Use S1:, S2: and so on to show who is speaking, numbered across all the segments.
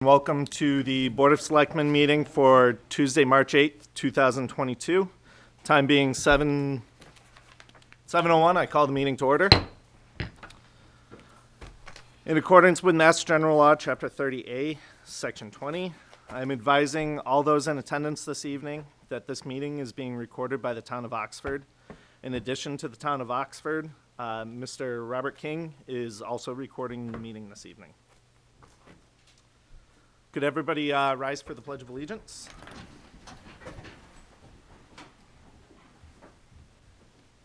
S1: Welcome to the Board of Selectmen meeting for Tuesday, March 8th, 2022. Time being 7, 7:01, I call the meeting to order. In accordance with Mass General Law, Chapter 30A, Section 20, I'm advising all those in attendance this evening that this meeting is being recorded by the Town of Oxford. In addition to the Town of Oxford, uh, Mr. Robert King is also recording the meeting this evening. Could everybody uh, rise for the Pledge of Allegiance?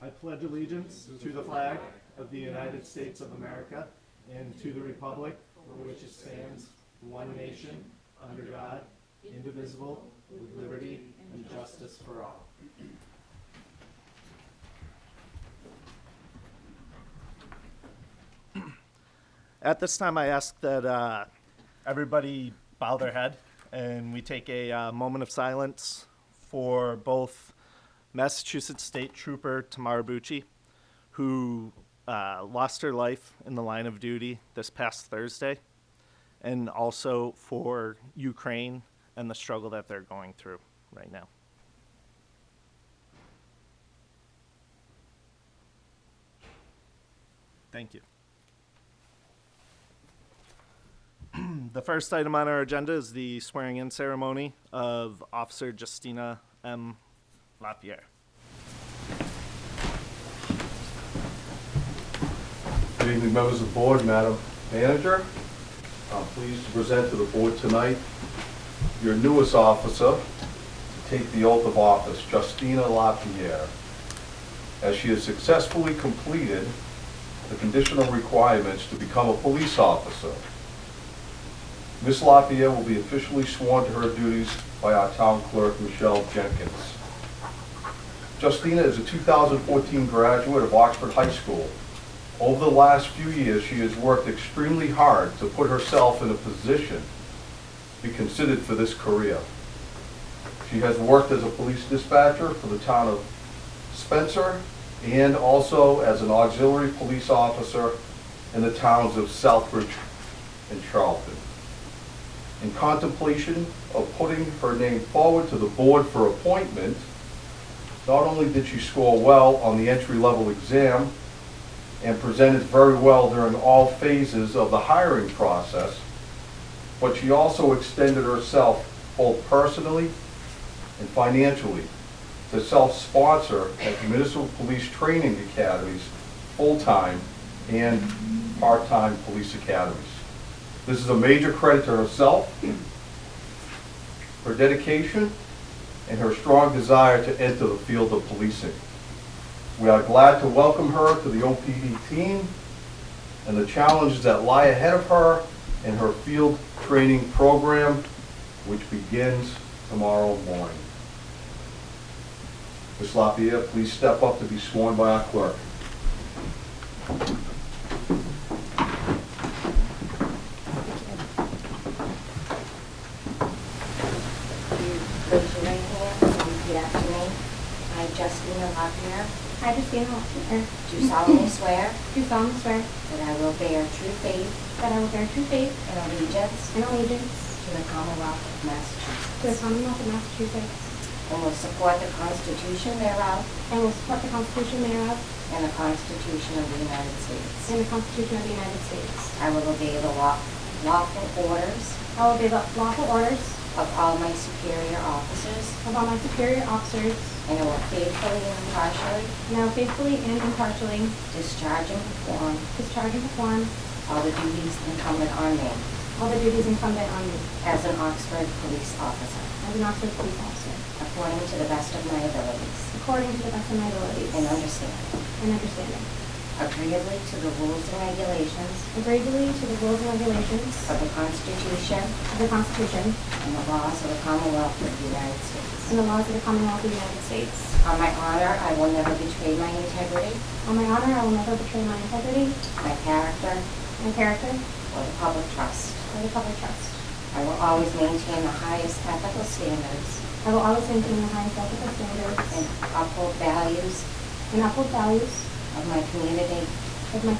S1: I pledge allegiance to the flag of the United States of America and to the republic for which it stands, one nation, under God, indivisible, with liberty and justice for all. At this time, I ask that uh, everybody bow their head and we take a uh, moment of silence for both Massachusetts State Trooper Tamara Bucci, who uh, lost her life in the line of duty this past Thursday, and also for Ukraine and the struggle that they're going through right now. Thank you. The first item on our agenda is the swearing-in ceremony of Officer Justina M. Lapierre.
S2: Good evening, members of the board, Madam Manager. I'm pleased to present to the board tonight your newest officer to take the oath of office, Justina Lapierre, as she has successfully completed the conditional requirements to become a police officer. Ms. Lapierre will be officially sworn to her duties by our town clerk, Michelle Jenkins. Justina is a 2014 graduate of Oxford High School. Over the last few years, she has worked extremely hard to put herself in a position to be considered for this career. She has worked as a police dispatcher for the town of Spencer and also as an auxiliary police officer in the towns of Southbridge and Charlton. In contemplation of putting her name forward to the board for appointment, not only did she score well on the entry-level exam and presented very well during all phases of the hiring process, but she also extended herself both personally and financially to self-sponsor at municipal police training academies, full-time and part-time police academies. This is a major credit to herself, her dedication, and her strong desire to enter the field of policing. We are glad to welcome her to the OPD team and the challenges that lie ahead of her in her field training program, which begins tomorrow morning. Ms. Lapierre, please step up to be sworn by our clerk.
S3: You raise your right hand and repeat after me. I, Justina Lochner,
S4: I, Justina Hofstadter,
S3: do solemnly swear
S4: do solemnly swear
S3: that I will bear true faith
S4: that I will bear true faith
S3: and allegiance
S4: and allegiance
S3: to the Commonwealth of Massachusetts,
S4: to the Commonwealth of Massachusetts,
S3: and will support the Constitution thereof
S4: and will support the Constitution thereof
S3: and the Constitution of the United States.
S4: and the Constitution of the United States.
S3: I will obey the law- lawful orders
S4: I will obey the lawful orders
S3: of all my superior officers,
S4: of all my superior officers,
S3: and I will faithfully and impartially
S4: and I will faithfully and impartially
S3: discharge and perform
S4: discharge and perform
S3: all the duties incumbent on me
S4: all the duties incumbent on me
S3: as an Oxford police officer,
S4: as an Oxford police officer,
S3: according to the best of my abilities
S4: according to the best of my
S3: and
S4: abilities
S3: understanding.
S4: and understanding,
S3: Agreeably to the rules and regulations
S4: agreeably to the rules and regulations
S3: of the Constitution
S4: of the Constitution
S3: and the laws of the Commonwealth of the United States.
S4: and the laws of the Commonwealth of the United States.
S3: On my honor, I will never betray my integrity,
S4: On my honor, I will never betray my integrity,
S3: my character,
S4: my character,
S3: or the public trust.
S4: or the public trust.
S3: I will always maintain the highest ethical standards
S4: I will always maintain the highest ethical
S3: and
S4: standards
S3: uphold values
S4: and uphold values
S3: of my community
S4: of my